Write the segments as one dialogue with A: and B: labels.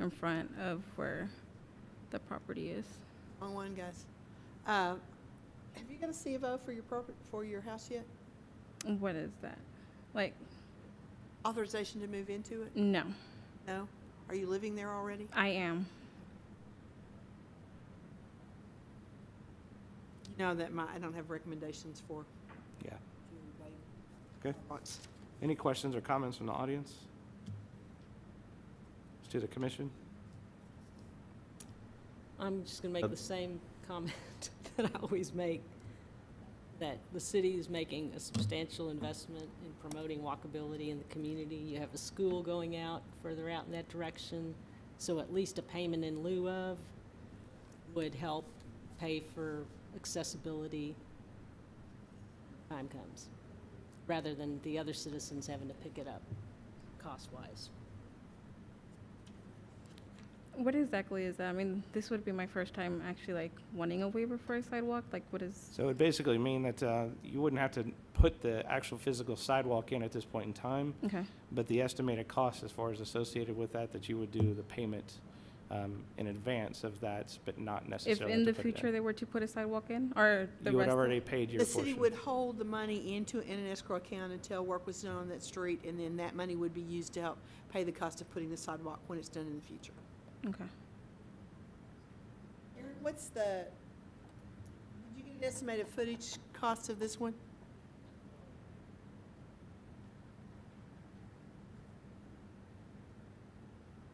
A: in front of where the property is.
B: Wrong one, guys. Uh, Have you got a C of O for your property, for your house yet?
A: What is that? Like,
B: Authorization to move into it?
A: no,
B: No? Are you living there already?
A: I am.
B: No, that might, I don't have recommendations for.
C: Yeah. Okay. Any questions or comments from the audience? Let's do the commission.
D: I'm just going to
C: Uh,
D: make the same comment that I always make, that the city is making a substantial investment in promoting walkability in the community. You have a school going out further out in that direction, so at least a payment in lieu of would help pay for accessibility when time comes, rather than the other citizens having to pick it up cost-wise.
A: What exactly is that? I mean, this would be my first time actually like wanting a waiver for a sidewalk. Like, what is?
C: So it would basically mean that uh, you wouldn't have to put the actual physical sidewalk in at this point in time,
A: Okay.
C: but the estimated cost as far as associated with that, that you would do the payment um, in advance of that, but not
A: If
C: necessarily
A: in
C: to
A: the
C: put it in.
A: future they were to put a sidewalk in, or the
C: You would
A: rest? of-
C: already paid your
B: The city
C: portion.
B: would hold the money into, in an escrow account until work was done on that street, and then that money would be used to help pay the cost of putting the sidewalk when it's done in the future.
A: Okay.
B: Aaron, What's the, did you get an estimated footage cost of this one?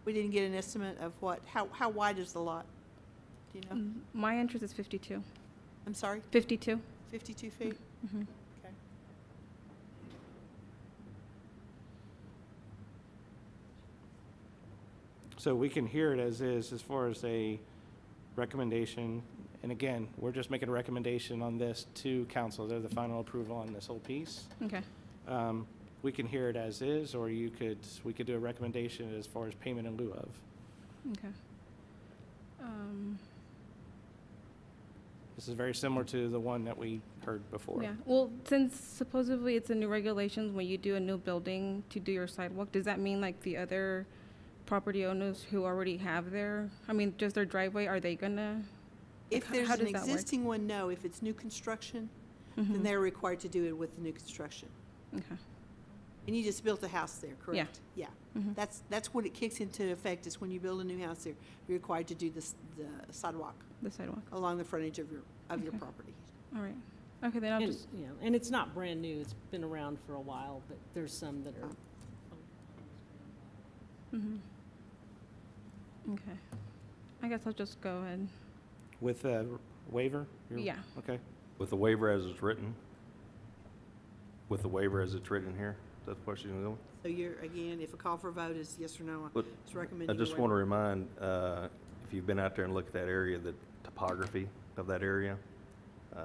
B: We didn't get an estimate of what, how, how wide is the lot? Do you know?
A: Mm, My interest is 52.
B: I'm sorry,
A: 52.
B: fifty-two feet?
A: Mhm.
C: Mm-hmm.
B: Okay.
C: So we can hear it as is, as far as a recommendation. And again, we're just making a recommendation on this to council. They're the final approval on this whole piece.
A: Okay.
C: Um, We can hear it as is, or you could, we could do a recommendation as far as payment in lieu of.
A: Okay. Um,
C: This is very similar to the one that we heard before.
A: yeah. Well, since supposedly it's a new regulations when you do a new building to do your sidewalk, does that mean like the other property owners who already have their, I mean, just their driveway, are they gonna?
B: If
A: How-
B: there's
A: how
B: an
A: does that work? Mm-hmm.
B: existing one, no. If it's new construction, then they're required to do it with the new construction.
A: Okay.
B: And you just built a house there, correct? Yeah.
A: Mhm.
B: That's, that's when it kicks into effect, is when you build a new house there, you're required to do this, the sidewalk
A: The sidewalk.
B: along the frontage of your, of your
A: Okay.
B: property.
A: All right. Okay, then I'll
D: And,
A: just.
D: you know, and it's not brand new, it's been around for a while, but there's some that are
A: mhm. Okay. I guess I'll just go ahead.
C: With a waiver? You're-
A: Yeah.
C: Okay.
E: With the waiver as it's written? With the waiver as it's written here? Is that the question you're going?
B: So you're, again, if a call for vote is yes or no,
E: Look,
B: it's recommended.
E: I just want to remind, uh, if you've been out there and looked at that area, the topography of that area, um,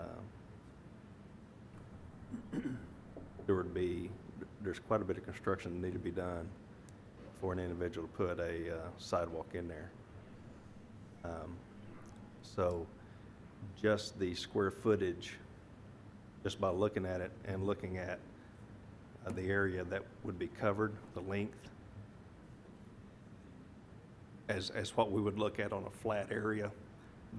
E: there would be, there's quite a bit of construction that need to be done for an individual to put a uh, sidewalk in there. Um, So just the square footage, just by looking at it and looking at uh, the area that would be covered, the length, as, as what we would look at on a flat area,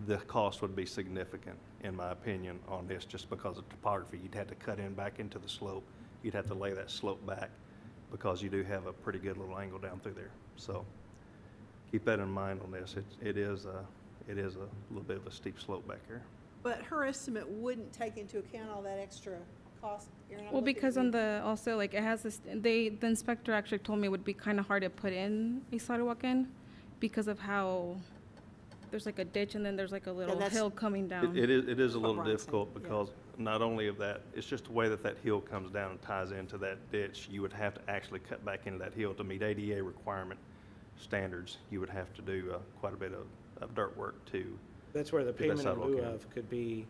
E: the cost would be significant, in my opinion, on this, just because of topography. You'd have to cut in back into the slope. You'd have to lay that slope back because you do have a pretty good little angle down through there. So keep that in mind on this. It, it is a, it is a little bit of a steep slope back here.
B: But her estimate wouldn't take into account all that extra cost, Erin. I'm
A: Well,
B: looking at
A: because
B: you.
A: on the, also, like, it has this, they, the inspector actually told me it would be kind of hard to put in a sidewalk in because of how there's like a ditch and then there's like a little
B: that's-
A: hill coming
E: It- It
A: down.
E: is, it is a
B: What
E: little
B: Brian said,
E: difficult
B: yeah.
E: because not only of that, it's just the way that that hill comes down and ties into that ditch. You would have to actually cut back into that hill to meet ADA requirement standards. You would have to do uh, quite a bit of, of dirt work too.
C: That's where the
E: Get that
C: payment in
E: sidewalk
C: lieu
E: in.
C: of could be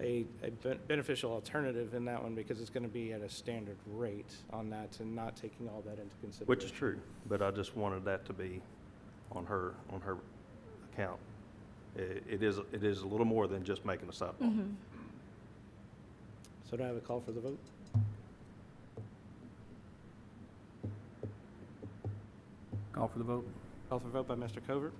C: a, a ben- beneficial alternative in that one because it's going to be at a standard rate on that and not taking all that into consideration.
E: Which is true, but I just wanted that to be on her, on her account. It, it is, it is a little more than just making a sidewalk.
C: So do I have a call for the vote?
F: Call for the vote.
C: Call for vote by Mr. Covert.